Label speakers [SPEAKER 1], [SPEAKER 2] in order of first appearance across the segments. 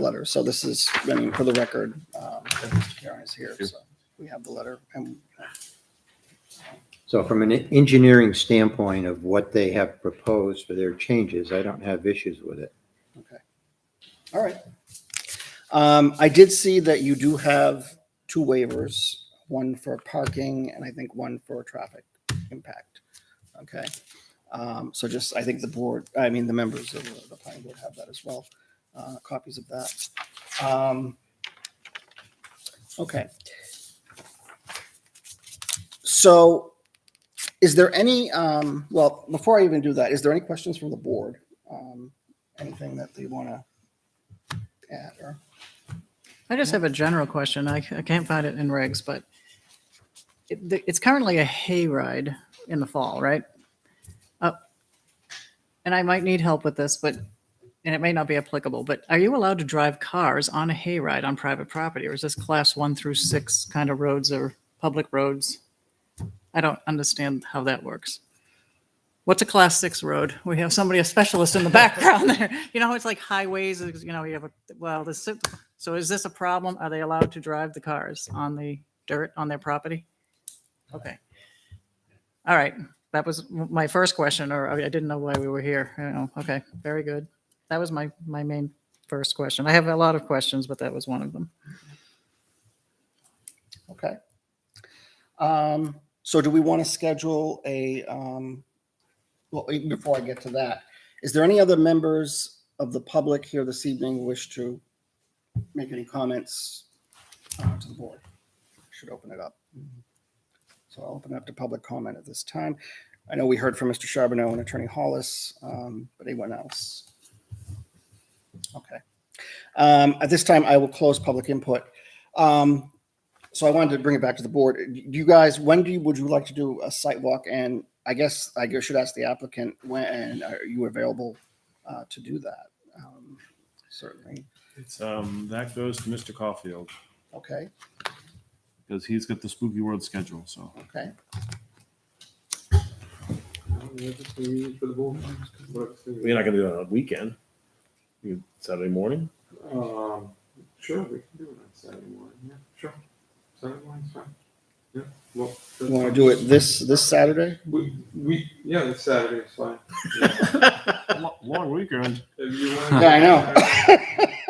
[SPEAKER 1] letter. So this is, I mean, for the record, um, that Mr. Karen is here, so we have the letter and
[SPEAKER 2] So from an engineering standpoint of what they have proposed for their changes, I don't have issues with it.
[SPEAKER 1] All right. Um, I did see that you do have two waivers, one for parking and I think one for traffic impact. Okay. Um, so just, I think the board, I mean, the members of the- the planning board have that as well, uh, copies of that. Um, okay. So is there any, um, well, before I even do that, is there any questions from the board? Um, anything that they want to add or?
[SPEAKER 3] I just have a general question. I, I can't find it in regs, but it, the- it's currently a hayride in the fall, right? Uh, And I might need help with this, but, and it may not be applicable, but are you allowed to drive cars on a hayride on private property? Or is this class one through six kind of roads or public roads? I don't understand how that works. What's a class six road? We have somebody, a specialist in the background there. You know, it's like highways, it's- you know, you have a, well, the, si- so is this a problem? Are they allowed to drive the cars on the dirt on their property? Okay. All right. That was m- my first question, or I I didn't know why we were here. I don't know. Okay, very good. That was my, my main first question. I have a lot of questions, but that was one of them.
[SPEAKER 1] Okay. Um, so do we want to schedule a, um, well, wait, before I get to that, is there any other members of the public here this evening who wish to make any comments uh, to the board? Should open it up. So I'll open it up to public comment at this time. I know we heard from Mr. Charbonneau and Attorney Hollis, um, but anyone else? Okay. Um, at this time, I will close public input. Um, so I wanted to bring it back to the board. Do you guys, when do you, would you like to do a site walk? And I guess I guess should ask the applicant, when are you available uh, to do that? Um, Certainly.
[SPEAKER 4] It's, um, that goes to Mr. Caulfield
[SPEAKER 1] Okay,
[SPEAKER 4] because he's got the spooky world schedule. So
[SPEAKER 1] okay.
[SPEAKER 5] Sure,
[SPEAKER 4] you're not going to do it on a weekend. You, Saturday morning.
[SPEAKER 5] we can do it on Saturday morning, yeah, sure. Saturday morning's fine. Yeah, well.
[SPEAKER 1] You want to do it this, this Saturday?
[SPEAKER 5] We, we, yeah, it's Saturday, it's fine. Yeah.
[SPEAKER 4] Lo- Long weekend.
[SPEAKER 5] If you
[SPEAKER 1] Yeah, I
[SPEAKER 5] want.
[SPEAKER 1] know.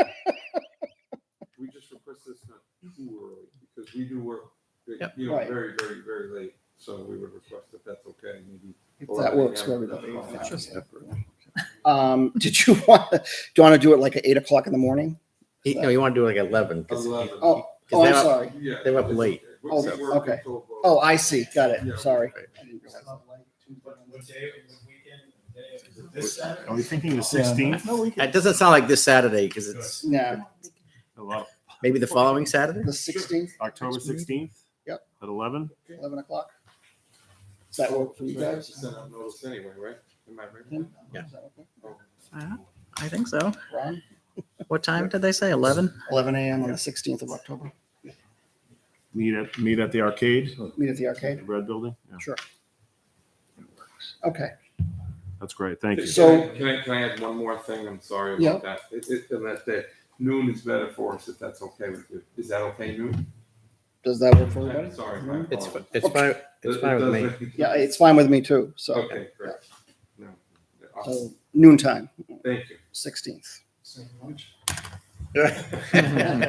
[SPEAKER 5] We just request this not too early, because we do work, you know,
[SPEAKER 1] Right.
[SPEAKER 5] very, very, very late, so we would request if that's okay, maybe.
[SPEAKER 1] If that works for everybody.
[SPEAKER 5] Yeah.
[SPEAKER 1] Um, Did you want, do you want to do it like at eight o'clock in the morning?
[SPEAKER 6] Eight- No, you want to do like 11. 'cause-
[SPEAKER 5] Eleven.
[SPEAKER 1] Oh, oh, I'm
[SPEAKER 6] that-
[SPEAKER 1] sorry.
[SPEAKER 5] Yeah.
[SPEAKER 6] They were up
[SPEAKER 5] it's
[SPEAKER 6] late.
[SPEAKER 5] okay. We-
[SPEAKER 1] Oh,
[SPEAKER 5] we work
[SPEAKER 1] okay.
[SPEAKER 5] until about-
[SPEAKER 1] Oh, I see. Got it. Sorry.
[SPEAKER 4] Are we thinking the 16th? No, we
[SPEAKER 6] It doesn't sound like this Saturday because it's
[SPEAKER 1] No,
[SPEAKER 6] maybe the following Saturday.
[SPEAKER 1] the sixteenth,
[SPEAKER 4] October 16th?
[SPEAKER 1] Yep.
[SPEAKER 4] At 11?
[SPEAKER 1] eleven o'clock? Does that work for you
[SPEAKER 5] We have to
[SPEAKER 1] guys? Hmm?
[SPEAKER 5] send out notice anyway, right? Am I right?
[SPEAKER 1] Tim?
[SPEAKER 6] Yeah.
[SPEAKER 1] Is that okay?
[SPEAKER 3] Uh, I think so.
[SPEAKER 1] Ron?
[SPEAKER 3] What time did they say? 11?
[SPEAKER 1] 11 a.m. on the 16th of October.
[SPEAKER 4] Meet at meet at the arcade,
[SPEAKER 1] Meet at the
[SPEAKER 4] the
[SPEAKER 1] arcade.
[SPEAKER 4] red building. Yeah,
[SPEAKER 1] Okay.
[SPEAKER 4] that's great. Thank you.
[SPEAKER 1] So-
[SPEAKER 5] Can I, can I add one more thing? I'm sorry
[SPEAKER 1] Yeah.
[SPEAKER 5] about that. It, it, and that's it. Noon is better for us if that's okay with you. Is that okay, noon?
[SPEAKER 1] Does that work for
[SPEAKER 5] I'm
[SPEAKER 1] everybody?
[SPEAKER 5] sorry. my
[SPEAKER 6] It's
[SPEAKER 5] apologies.
[SPEAKER 6] fi- it's fine. It's
[SPEAKER 5] It- it
[SPEAKER 6] fine with
[SPEAKER 5] does
[SPEAKER 6] me.
[SPEAKER 5] make
[SPEAKER 1] Yeah, it's fine with me too. So,
[SPEAKER 5] Okay, great. No,
[SPEAKER 1] so
[SPEAKER 5] awesome.
[SPEAKER 1] noon time,
[SPEAKER 5] Thank you.
[SPEAKER 1] 16th.
[SPEAKER 3] What did I,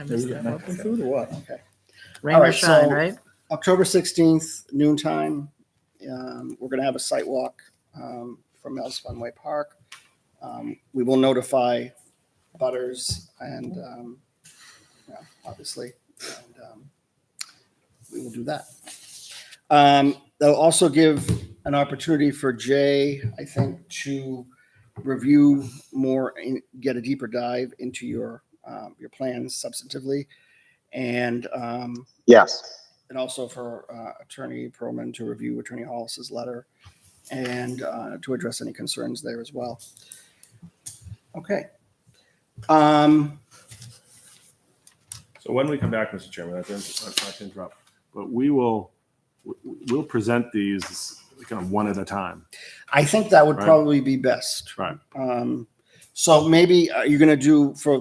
[SPEAKER 3] I missed that. one.
[SPEAKER 1] Okay.
[SPEAKER 3] Rain
[SPEAKER 1] All
[SPEAKER 3] or
[SPEAKER 1] right,
[SPEAKER 3] shine,
[SPEAKER 1] so-
[SPEAKER 3] right?
[SPEAKER 1] October 16th, noon time. Um, we're going to have a site walk um, from Mel's Funway Park. Um, we will notify butters and um, yeah, obviously, and, um, we will do that. Um, they'll also give an opportunity for Jay, I think, to review more and get a deeper dive into your um, your plans substantively, and um, yes, and also for uh, Attorney Perlman to review Attorney Hollis's letter and uh, to address any concerns there as well. Okay. Um,
[SPEAKER 4] So when we come back, Mr. Chairman, I didn't, I didn't interrupt, but we will we- we'll present these kind of one at a time.
[SPEAKER 1] I think that would
[SPEAKER 4] Right.
[SPEAKER 1] probably be best.
[SPEAKER 4] Right.
[SPEAKER 1] Um, So maybe, are you going to do for